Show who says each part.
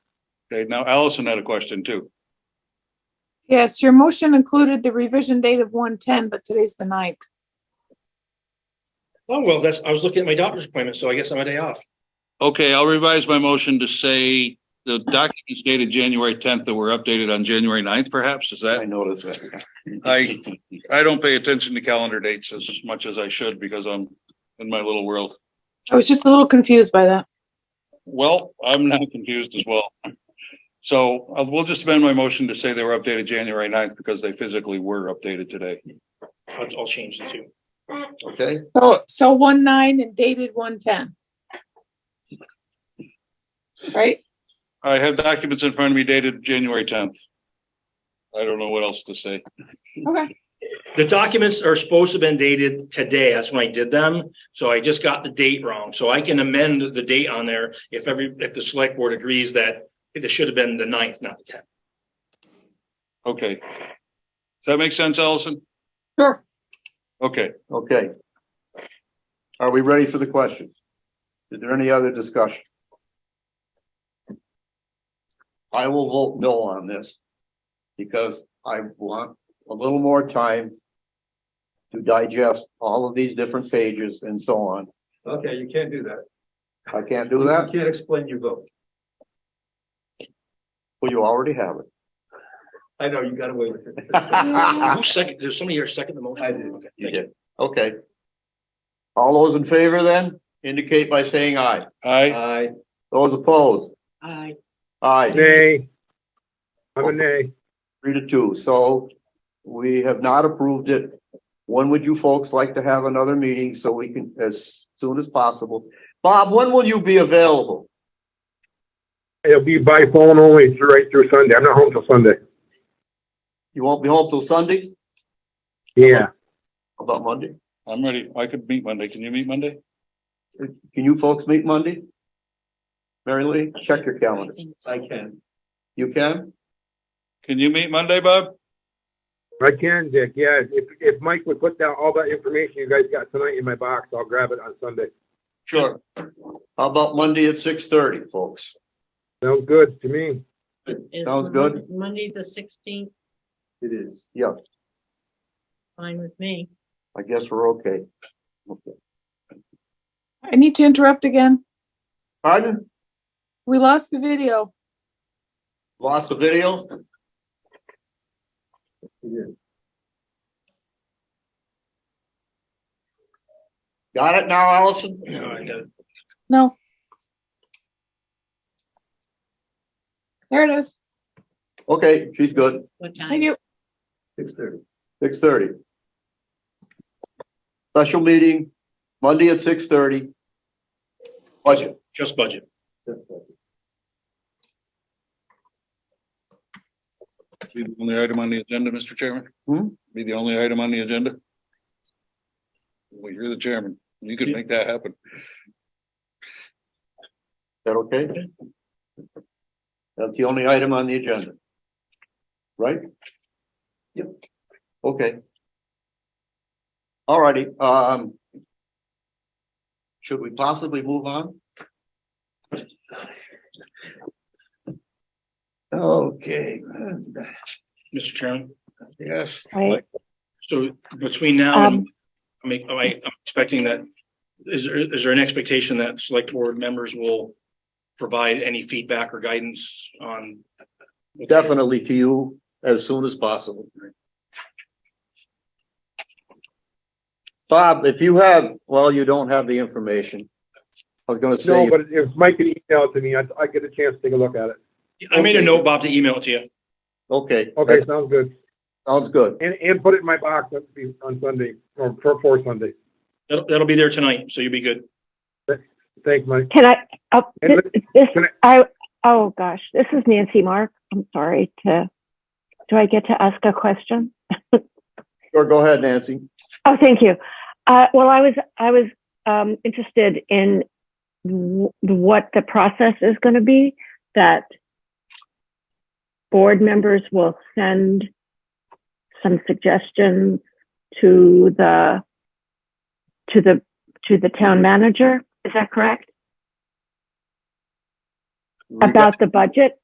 Speaker 1: Okay, now Allison had a question too.
Speaker 2: Yes, your motion included the revision date of one ten, but today's the ninth.
Speaker 3: Oh, well, that's, I was looking at my doctor's appointment, so I guess I'm a day off.
Speaker 1: Okay, I'll revise my motion to say the documents dated January tenth that were updated on January 9th. perhaps, is
Speaker 4: I
Speaker 1: that?
Speaker 4: noticed that.
Speaker 1: I, I don't pay attention to calendar dates as much as I should because I'm in my little world.
Speaker 2: I was just a little confused by that.
Speaker 1: Well, I'm now confused as well. So uh, we'll just amend my motion to say they were updated January 9th because they physically were updated today.
Speaker 3: I'll, I'll change the two.
Speaker 4: Okay,
Speaker 2: So, so one nine and dated one ten. Right?
Speaker 1: I have documents in front of me dated January tenth. I don't know what else to say.
Speaker 2: Okay.
Speaker 3: The documents are supposed to have been dated today. That's when I did them. So I just got the date wrong. So I can amend the date on there if every, if the select board agrees that it should have been the ninth, not the tenth.
Speaker 1: Okay. Does that make sense, Allison?
Speaker 2: Sure.
Speaker 1: Okay,
Speaker 4: okay. Are we ready for the questions? Is there any other discussion? I will vote no on this. Because I want a little more time. To digest all of these different pages and so on.
Speaker 5: Okay, you can't do that.
Speaker 4: I can't do that,
Speaker 5: You can't explain your vote.
Speaker 4: well, you already have it.
Speaker 5: I know, you got away with it.
Speaker 4: Ah.
Speaker 3: Who second, there's somebody here second the motion?
Speaker 5: I did.
Speaker 3: Okay,
Speaker 4: You
Speaker 3: thank you.
Speaker 4: did. Okay. All those in favor then, indicate by saying aye.
Speaker 1: I,
Speaker 5: I,
Speaker 4: Those opposed?
Speaker 2: Aye.
Speaker 4: Aye,
Speaker 6: Nay. I'm a nay.
Speaker 4: three to two. So we have not approved it. When would you folks like to have another meeting so we can, as soon as possible? Bob, when will you be available?
Speaker 6: It'll be by phone only through, right through Sunday. I'm not home till Sunday.
Speaker 4: You won't be home till Sunday?
Speaker 6: Yeah.
Speaker 4: How About Monday?
Speaker 1: I'm ready. I could meet Monday. Can you meet Monday?
Speaker 4: Can you folks meet Monday? Mary Lee, check your calendar.
Speaker 5: I can.
Speaker 4: You can?
Speaker 1: Can you meet Monday, Bob?
Speaker 6: I can, Dick. Yeah, if, if Mike would put down all that information you guys got tonight in my box, I'll grab it on Sunday.
Speaker 4: Sure. How about Monday at six thirty, folks?
Speaker 6: Sounds good to me.
Speaker 7: Is
Speaker 4: Sounds
Speaker 7: Monday-
Speaker 4: good.
Speaker 7: Monday, the sixteenth,
Speaker 5: It is.
Speaker 4: Yeah,
Speaker 7: fine with me.
Speaker 4: I guess we're okay. Okay.
Speaker 2: I need to interrupt again.
Speaker 4: Pardon?
Speaker 2: We lost the video.
Speaker 4: Lost the video?
Speaker 5: It is.
Speaker 4: Got it now, Allison?
Speaker 3: All right, uh, got it.
Speaker 2: No. There it is.
Speaker 4: Okay, she's good.
Speaker 7: What
Speaker 2: Thank
Speaker 7: time?
Speaker 2: you.
Speaker 5: Six thirty.
Speaker 4: Six thirty. Special meeting, Monday at six thirty. Budget.
Speaker 3: Just budget.
Speaker 5: That's right.
Speaker 1: Be the only item on the agenda, Mr. Chairman?
Speaker 4: Hmm?
Speaker 1: Be the only item on the agenda? Well, you're the chairman. You could make that happen.
Speaker 4: Is that okay? That's the only item on the agenda. Right? Yep. Okay. Alrighty, um. Should we possibly move on? Okay.
Speaker 3: Mr. Chairman,
Speaker 4: Yes.
Speaker 3: so between now and, I mean, am I, I'm expecting that, is there, is there an expectation that select board members will provide any feedback or guidance on?
Speaker 4: Definitely to you as soon as possible. Bob, if you have, well, you don't have the information. I was gonna
Speaker 6: No,
Speaker 4: say,
Speaker 6: but if Mike can email it to me, I, I get a chance to take a look at it.
Speaker 3: I made a note, Bob, to email it to you.
Speaker 4: okay,
Speaker 6: Okay,
Speaker 4: that
Speaker 6: sounds good.
Speaker 4: sounds good.
Speaker 6: And, and put it in my box on- on Sunday or for, for Sunday.
Speaker 3: That'll, that'll be there tonight, so you'll be good.
Speaker 6: Thanks, Mike.
Speaker 8: Can I, oh,
Speaker 6: And
Speaker 8: thi- this,
Speaker 6: can
Speaker 8: I, oh gosh, this is Nancy Mark. I'm sorry to, do I get to ask a question?
Speaker 4: Sure, go ahead, Nancy.
Speaker 8: Oh, thank you. Uh, well, I was, I was, um, interested in w- what the process is going to be that board members will send some suggestions to the, to the, to the town manager. Is that correct? About the budget?